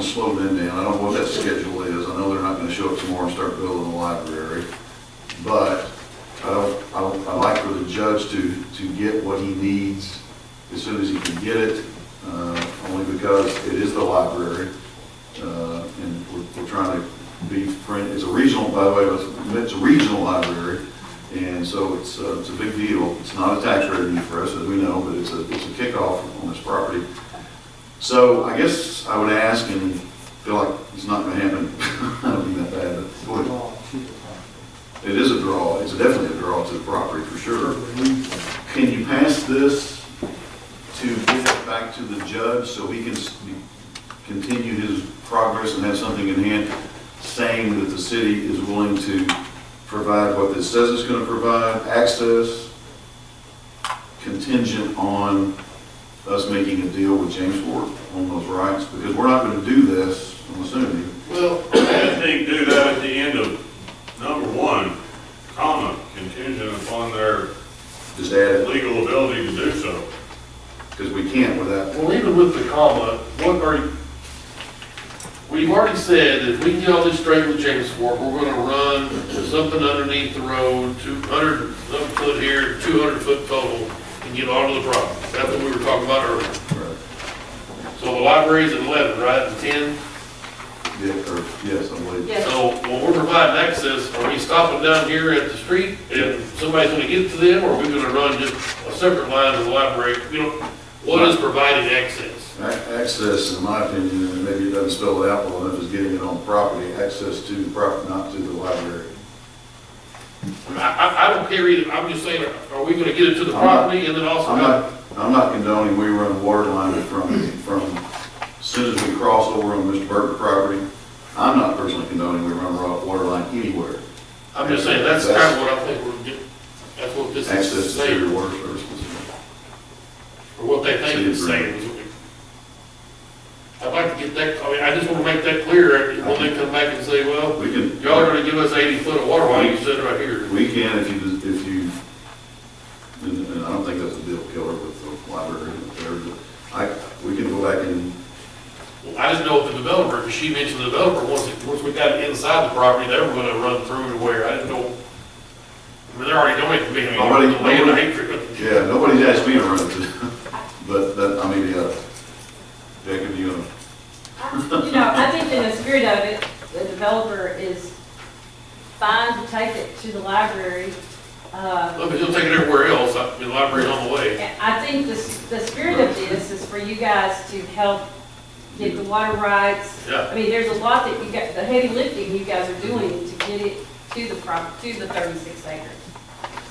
slow them down. I don't know what that schedule is. I know they're not gonna show up tomorrow and start building the library. But I don't, I don't, I like for the judge to, to get what he needs as soon as he can get it, uh, only because it is the library. Uh, and we're, we're trying to be friend, it's a regional, by the way, it's- it's a regional library. And so it's, uh, it's a big deal. It's not a tax revenue for us, as we know, but it's a, it's a kickoff on this property. So I guess I would ask and feel like it's not gonna happen. I don't mean that bad, but boy, it is a draw, it's definitely a draw to the property for sure. Can you pass this to get it back to the judge so he can s- continue his progress and have something in hand saying that the city is willing to provide what this says it's gonna provide, access contingent on us making a deal with James Ford on those rights? Because we're not gonna do this, I'm assuming. Well, I think do that at the end of number one, comma, contingent upon their Just add it, legal ability to do so. because we can't without, Well, even with the comma, what are, you- we've already said that if we can get all this straight with James Fork, we're gonna run something underneath the road, two hundred foot here, two hundred foot total, and get onto the property. That's what we were talking about earlier. So the library's at eleven, right, and ten? yeah, or, yes, I believe. Yes, So when we're providing access, are we stopping down here at the street? And somebody's gonna get to them, or are we gonna run just a separate line to the library? You know, what is providing access? Ac- Access, in my opinion, and maybe it doesn't spell it out well enough, is getting it on property, access to the property, not to the library. I, I, I don't care either, I'm just saying, are we gonna get it to the property and then also, I'm not, I'm not condoning we run a water line from, from, as soon as we cross over on Mr. Burke's property. I'm not personally condoning we run a raw water line anywhere, I'm just saying, that's kind of what I think we're getting, that's what this is access to saying, your water services. or what they think it's saying. is what we- I'd like to get that, I mean, I just wanna make that clear, and when they come back and say, well, We can. y'all are gonna give us eighty foot of water line, you said right here. We can if you, if you, and, and I don't think that's a deal killer with the library, and whatever, but I, we can go back and Well, I didn't know if the developer, because she mentioned the developer, once, it- once we got it inside the property, they were gonna run through to where, I didn't know. I mean, they're already doing it to me, I'm already, Nobody- land, I nobody- hate for it. Yeah, nobody's asked me to run it, but that, I mean, yeah, Jacob, you, know, I- you know, I think in the spirit of it, the developer is fine to take it to the library. Uh, Well, but you'll take it everywhere else, I mean, the library's on the way. and I think the, s- the spirit of this is for you guys to help get the water rights. Yeah, I mean, there's a lot that you got, the heavy lifting you guys are doing to get it to the prop, to the thirty-six acres.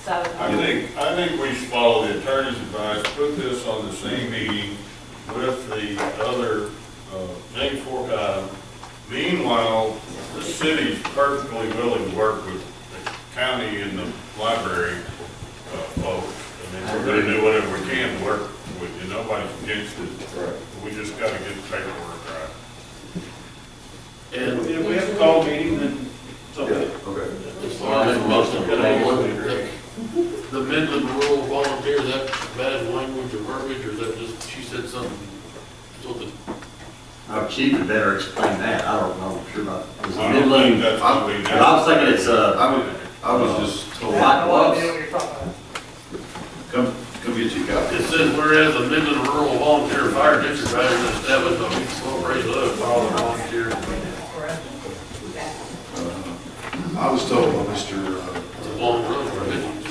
So, I think, I think we should follow the attorney's advice, put this on the same meeting with the other, uh, James Fork item. Meanwhile, the city's perfectly willing to work with the county and the library, uh, folks. I mean, we're gonna do whatever we can to work with you, nobody's against it. We just gotta get the paperwork right. and If we have a call meeting, then yeah, something. okay. as far as most of the, the Midland Rural Volunteer, is that bad language or verbiage, or is that just, she said something? so the- Our chief would better explain that, I don't know, I'm sure about, is it I don't think Midland? that's what we But I was thinking it's, uh, I was, I was just told, Lot Bluffs, come, come get your copy. It says whereas the Midland Rural Volunteer Fire District has been established on East Raise Love, follow volunteer. I was told by Mr., uh, It's a long road for Midland.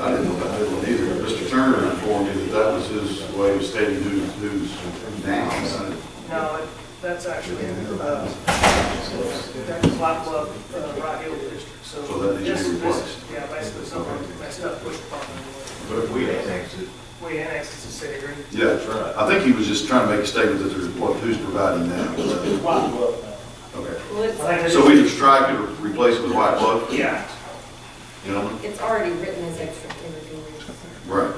I didn't know about that one either, but Mr. Turner informed me that that was his way of stating who, who's now. No, it- that's actually, uh, that's lot of, uh, Rock Hill District, so. So that needs to be this- this- replaced. Yeah, basically, something messed up, pushed upon them. But we, We annexed it to city agreement. yeah, that's right. I think he was just trying to make a statement that there's, what, who's providing that? so- Okay. well, it's, I think So we just tried to replace it with white bluff, Yeah, you know? It's already written as extracurriculars. Right,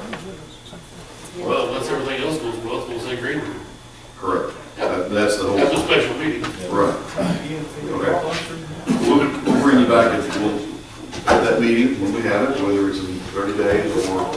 Well, unless everything else goes well, it's gonna say Greenwood. correct. That- That's the whole. That's a special meeting. Right. Okay. We'll, we'll bring you back at, we'll, at that meeting, when we have it, whether it's in thirty days or uh,